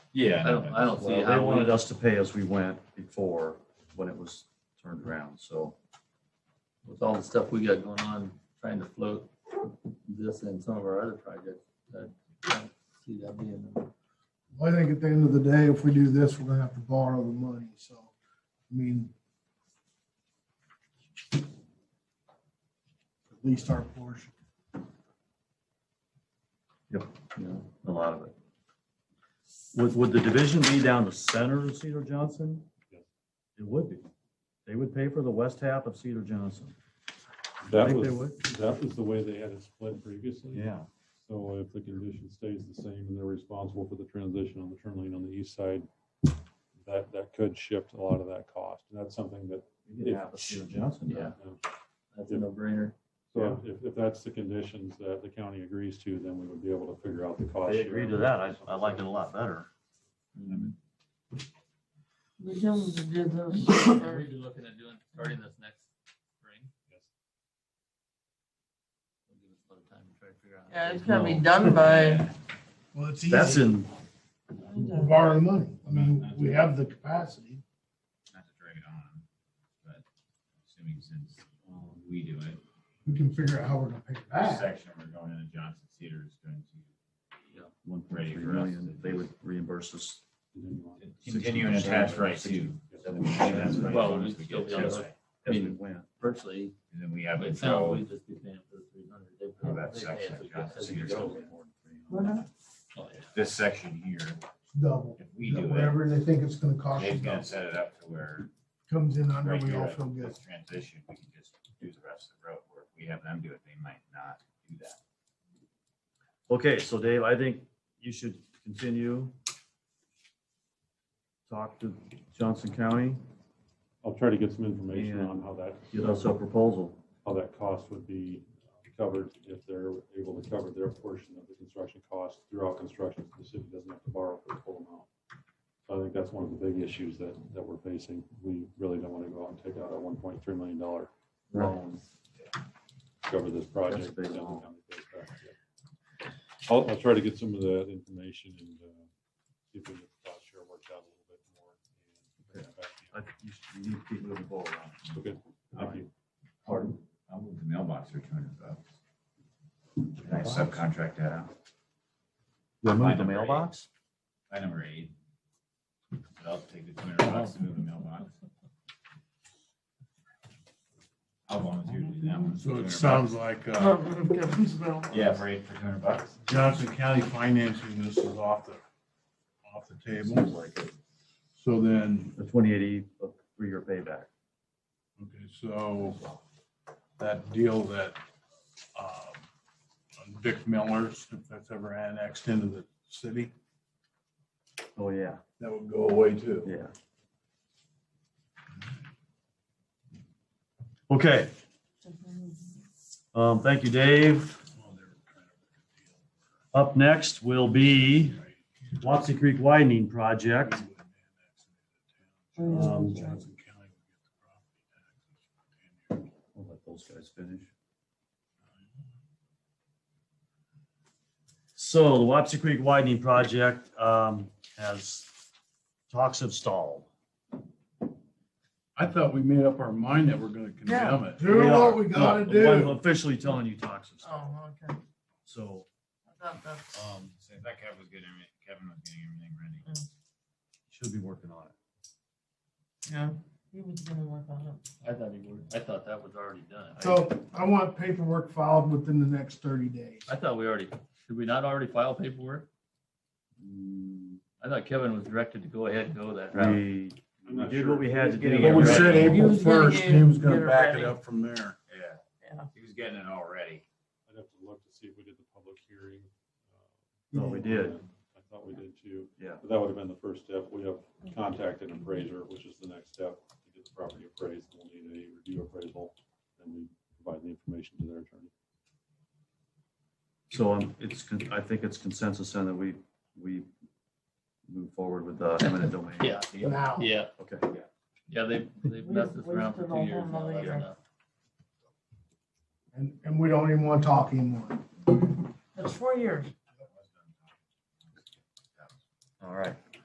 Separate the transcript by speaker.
Speaker 1: Yeah.
Speaker 2: I don't, I don't see
Speaker 3: Well, they
Speaker 2: how
Speaker 3: wanted
Speaker 2: we,
Speaker 3: us to pay as we went before, when it was turned around, so.
Speaker 2: with all the stuff we got going on, trying to float this and some of our other projects, I don't see that being.
Speaker 4: I think at the end of the day, if we do this, we're gonna have to borrow the money, so, I mean. At least our portion.
Speaker 3: you know, a lot of it. Would, would the division be down the center of Cedar Johnson? It would be. They would pay for the west half of Cedar Johnson. I
Speaker 5: That
Speaker 3: think they
Speaker 5: was,
Speaker 3: would.
Speaker 5: that was the way they had it split previously.
Speaker 3: Yeah,
Speaker 5: So if the condition stays the same and they're responsible for the transition on the turn lane on the east side, that, that could shift a lot of that cost. And that's something that,
Speaker 3: we get half of Cedar Johnson. back.
Speaker 2: Yeah.
Speaker 5: um,
Speaker 2: That's a no brainer.
Speaker 5: so if, if that's the conditions that the county agrees to, then we would be able to figure out the cost.
Speaker 3: They agreed to that. I, I like it a lot better.
Speaker 6: The Joneses did
Speaker 2: Are
Speaker 6: those.
Speaker 2: we looking at doing, starting this next spring?
Speaker 5: Yes.
Speaker 2: We'll give us a little time to try to figure out.
Speaker 6: Yeah, it's gotta be done by.
Speaker 4: Well, it's
Speaker 3: That's
Speaker 4: easy,
Speaker 3: in,
Speaker 4: we're borrowing money, I mean, we have the capacity.
Speaker 1: Not to drag it on, but assuming since we do it,
Speaker 4: we can figure out how we're gonna pay it
Speaker 1: this
Speaker 4: back.
Speaker 1: section we're going into Johnson Cedar is going to
Speaker 3: one point three million. They would reimburse us.
Speaker 1: continue and attach right to.
Speaker 2: Well,
Speaker 1: Well,
Speaker 2: we
Speaker 1: we
Speaker 2: still
Speaker 1: get
Speaker 2: be on
Speaker 1: to
Speaker 2: the-
Speaker 1: it.
Speaker 3: as we went.
Speaker 2: Virtually,
Speaker 1: And then we have
Speaker 2: it sounds
Speaker 1: control.
Speaker 2: we just be paying for the three hundred. They
Speaker 1: Oh, that
Speaker 2: they pay
Speaker 1: section,
Speaker 2: us
Speaker 1: yeah,
Speaker 2: as
Speaker 1: so
Speaker 2: we
Speaker 1: you're
Speaker 2: go.
Speaker 1: talking
Speaker 6: Well,
Speaker 2: Oh, yeah.
Speaker 1: This section here,
Speaker 4: Double,
Speaker 1: if we do it,
Speaker 4: whatever they think it's gonna cost
Speaker 1: Dave's
Speaker 4: us,
Speaker 1: gonna set it up to where
Speaker 4: comes in under,
Speaker 1: right
Speaker 4: we all
Speaker 1: here,
Speaker 4: feel good.
Speaker 1: this transition, we can just do the rest of the road work. We have them do it, they might not do that.
Speaker 3: Okay, so Dave, I think you should continue. Talk to Johnson County,
Speaker 5: I'll try to get some information
Speaker 3: Yeah.
Speaker 5: on how that.
Speaker 3: get us a proposal.
Speaker 5: how that cost would be covered if they're able to cover their portion of the construction cost throughout construction. so The city doesn't have to borrow for the full amount. So I think that's one of the big issues that, that we're facing. We really don't want to go out and take out a one point three million dollar loan to cover this
Speaker 3: That's a
Speaker 5: project.
Speaker 3: big
Speaker 5: down the
Speaker 3: loan.
Speaker 5: county base back, yeah. I'll, I'll try to get some of that information and uh, see if we can cost share worked out a little bit more. and bring that back to
Speaker 3: I think you should- you need to keep moving forward on it.
Speaker 5: you. Okay, thank you.
Speaker 1: Pardon? I'll move the mailbox for two hundred bucks. Can I subcontract that out?
Speaker 3: Remove the
Speaker 1: number eight.
Speaker 3: mailbox?
Speaker 1: By number eight. I'll take the two hundred bucks and move the mailbox. I'll volunteer to do that one.
Speaker 7: So it
Speaker 1: 200
Speaker 7: sounds like uh,
Speaker 1: bucks. Yeah, for eight, for two hundred bucks.
Speaker 7: Johnson County financing this is off the, off the table. So then,
Speaker 3: The twenty-eight E, a three-year payback.
Speaker 7: okay, so that deal that um, on Vic Miller's, if that's ever annexed into the city,
Speaker 3: Oh, yeah,
Speaker 7: that would go away too.
Speaker 3: yeah. Okay, um, thank you, Dave.
Speaker 7: Well, they were kind of
Speaker 3: Up next will be
Speaker 7: a good
Speaker 3: Wapsie Creek Widening Project.
Speaker 7: deal, right?
Speaker 3: Um,
Speaker 7: Johnson County would get the property taxes for 10 years.
Speaker 3: I'll let those guys finish. So the Wapsie Creek widening project um, has, talks have stalled.
Speaker 7: I thought we made up our mind that we're gonna condemn it.
Speaker 4: Do what we gotta
Speaker 3: No, I'm
Speaker 4: do.
Speaker 3: Officially telling you talks have stalled.
Speaker 6: Oh, okay.
Speaker 3: So
Speaker 6: I thought that's-
Speaker 3: um,
Speaker 1: So that Kevin was getting, every- Kevin was getting everything ready.
Speaker 3: should be working on it.
Speaker 6: Yeah. He was gonna work on it.
Speaker 2: I thought he would, I thought that was already done. I-
Speaker 4: So I want paperwork filed within the next thirty days.
Speaker 2: I thought we already, did we not already file paperwork? I thought Kevin was directed to go ahead and go that route.
Speaker 3: We
Speaker 5: I'm
Speaker 3: we
Speaker 5: not
Speaker 3: did
Speaker 5: sure.
Speaker 3: what we had to do.
Speaker 7: But we said
Speaker 6: He
Speaker 7: April
Speaker 6: was gonna
Speaker 7: first, he was
Speaker 6: get
Speaker 7: gonna
Speaker 6: it
Speaker 7: back it
Speaker 6: ready.
Speaker 7: up from there.
Speaker 1: Yeah.
Speaker 6: Yeah.
Speaker 1: He was getting it all ready.
Speaker 5: I'd have to look to see if we did the public hearing. uh,
Speaker 3: No, we did.
Speaker 5: I thought we did too.
Speaker 3: Yeah.
Speaker 5: But that would have been the first step. We have contacted an appraiser, which is the next step to get the property appraised. We'll need a review appraisal and we provide the information to their attorney.
Speaker 3: So um, it's, con- I think it's consensus then that we, we move forward with the eminent domain.
Speaker 2: Yeah,
Speaker 4: Now.
Speaker 2: yeah,
Speaker 3: Okay.
Speaker 2: yeah, they, they've
Speaker 6: We-
Speaker 2: messed us
Speaker 6: we
Speaker 2: around for
Speaker 6: stood
Speaker 2: two
Speaker 6: on
Speaker 2: years
Speaker 6: one
Speaker 2: now.
Speaker 6: another
Speaker 2: that's
Speaker 6: year.
Speaker 2: enough.
Speaker 4: And, and we don't even want to talk anymore.
Speaker 6: That's four years.
Speaker 3: All right.